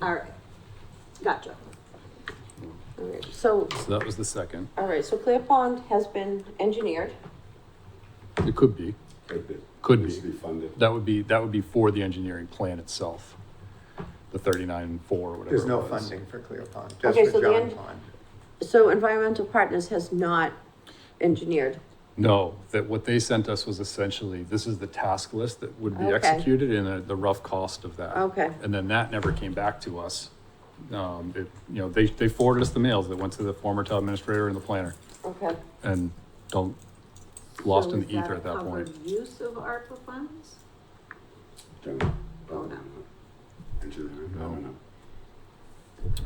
All right, gotcha. All right, So, So that was the second. all right, so Clear Pond has been engineered. It could be, Could be. could Needs to be. be funded. That would be, that would be for the engineering plan itself. The thirty-nine four, whatever. There's it no was. funding for Clear Pond, just Okay, so for the John en- Pond. So Environmental Partners has not engineered. No, that what they sent us was essentially, this is the task list that would be Okay. executed and uh, the rough cost of that. Okay. And then that never came back to us. Um, it, you know, they, they forwarded us the mails that went to the former town administrator and the planner Okay. and don't, lost so in is the ether a at that point. covered Use of ARPA funds? Don't, Don't know. Engineering, I don't know.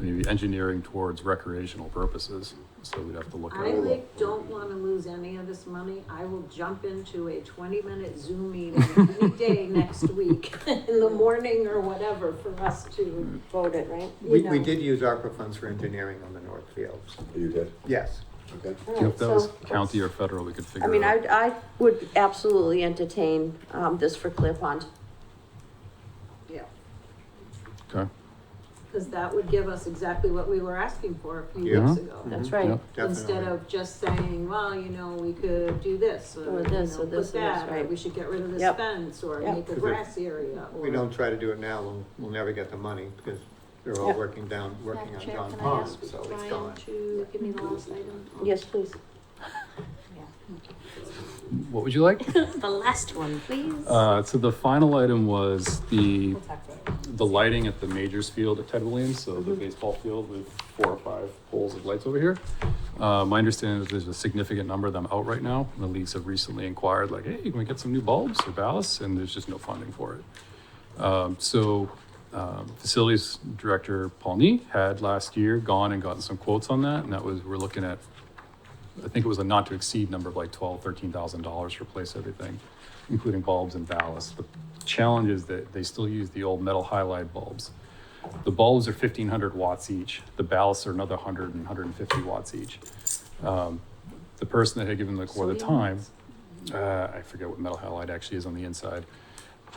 Maybe engineering towards recreational purposes, so we'd have to look at. I like, don't wanna lose any of this money. I will jump into a twenty-minute Zoom meeting any day next week in the morning or whatever for us to, Voted, right? We, you know. we did use ARPA funds for engineering on the North Fields, You did? yes. Okay. All If right, that was so- county or federal, we could figure I out. mean, I, I would absolutely entertain, um, this for Clear Pond. yeah. Okay, Cause that would give us exactly what we were asking for a few Yeah. weeks ago. That's Mhm. right. Mm-hmm, Yep. Instead Definitely. of just saying, well, you know, we could do this, or, Or you know, this, or put this, or this, that, or right. we should get rid of this Yep. fence, or Yep. make a Because if grass area, or. We don't try to do it now, we'll, we'll never get the money, because they're all Yeah. working down, working Madam on Chair, John can I Pond, ask so it's Brian gone. to give me the last item? Yes, please. what would you like? The last one, please. Uh, so the final item was the, We'll talk later. the lighting at the Majors Field at Ted Williams, so Mm-hmm. the baseball field with four or five poles of lights over here. Uh, my understanding is there's a significant number of them out right now, and the leagues have recently inquired, like, hey, can we get some new bulbs or ballasts? And there's just no funding for it. Um, so, um, facilities director Paul Nee had last year gone and gotten some quotes on that, and that was, we're looking at, I think it was a not to exceed number of like twelve, thirteen thousand dollars to replace everything, including bulbs and ballasts. The challenge is that they still use the old metal halide bulbs. The bulbs are fifteen hundred watts each, the ballasts are another hundred and hundred and fifty watts each. Um, the person that had given the quote at the time, uh, I forget what metal halide actually is on the inside.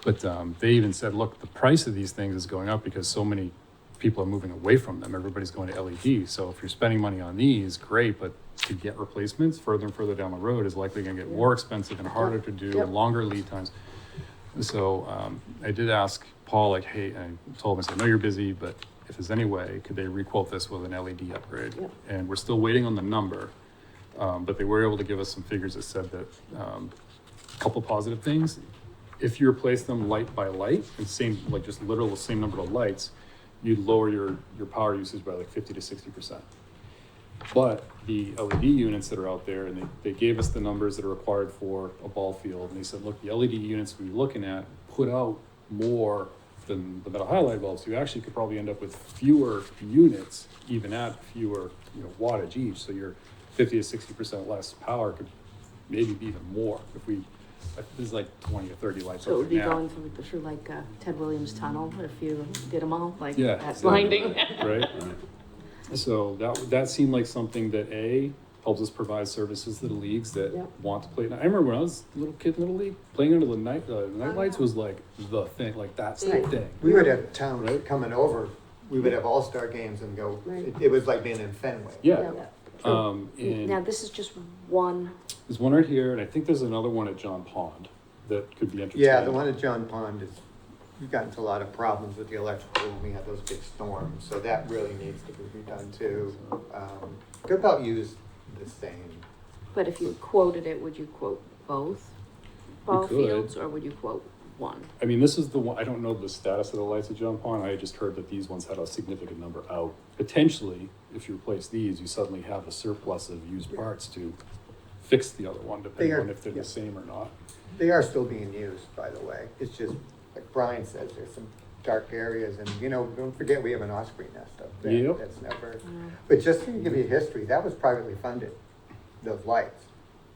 But um, they even said, look, the price of these things is going up because so many people are moving away from them. Everybody's going to LED. So if you're spending money on these, great, but to get replacements further and further down the road is likely going to get more expensive and harder to do Yep. and longer lead times. So um, I did ask Paul, like, hey, I told him, I said, I know you're busy, but if there's any way, could they requote this with an LED upgrade? Yep. And we're still waiting on the number. Um, but they were able to give us some figures that said that um, a couple positive things. If you replace them light by light, and same, like just literal same number of lights, you'd lower your, your power usage by like fifty to sixty percent. But the LED units that are out there, and they, they gave us the numbers that are required for a ball field, and they said, look, the LED units we're looking at put out more than the metal halide bulbs, you actually could probably end up with fewer units, even at fewer, you know, wattage each, so your fifty to sixty percent less power could maybe be even more if we, there's like twenty or thirty lights So it over would be now. going through, through like uh, Ted Williams Tunnel if you did them all, like Yeah. that's yeah, blinding. Right? So that, that seemed like something that A, helps us provide services to the leagues that Yep. want to play. I remember when I was a little kid in Little League, playing under the night, uh, night lights was like the thing, like that's the Oh, Right. thing. We would have towns coming over, we would have all-star games and go, Right. it- it was like being in Fenway. Uh, Yeah, Yeah. um, Now, and this is just one, there's one right here, and I think there's another one at John Pond that could be interesting. Yeah, the one at John Pond is, we got into a lot of problems with the electrical when we had those big storms, so that really needs to be redone too. Um, Could about use the same, but if you quoted it, would you quote both ball could. fields or would you quote one? I mean, this is the one, I don't know the status of the lights at John Pond, I just heard that these ones had a significant number out. Potentially, if you replace these, you suddenly have a surplus of used parts to fix the other one, depending They are- on if they're yeah. the same or not. They are still being used, by the way. It's just, like Brian says, there's some dark areas and, you know, don't forget we have an osprey nest up there. Yep. That's never, but just to give you history, that was privately funded, those lights,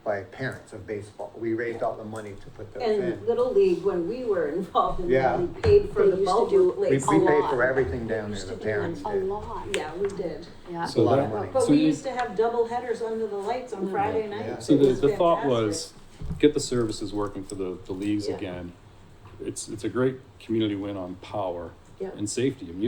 by parents of baseball. We raised all the money to put those And in. Little League, when we were involved in Yeah. that, we paid for They the used to bulb do- We, we replacement. paid lot. for everything down there, Used the to do parents A did. lot, Yeah, we did. yeah. a So lot of that, money. But So we you- used to have double headers under the lights on Friday nights. so It the, the thought fantastic. was, get the services working for the, the leagues Yeah. again. It's, it's a great community win on power Yeah. and safety, I mean, you've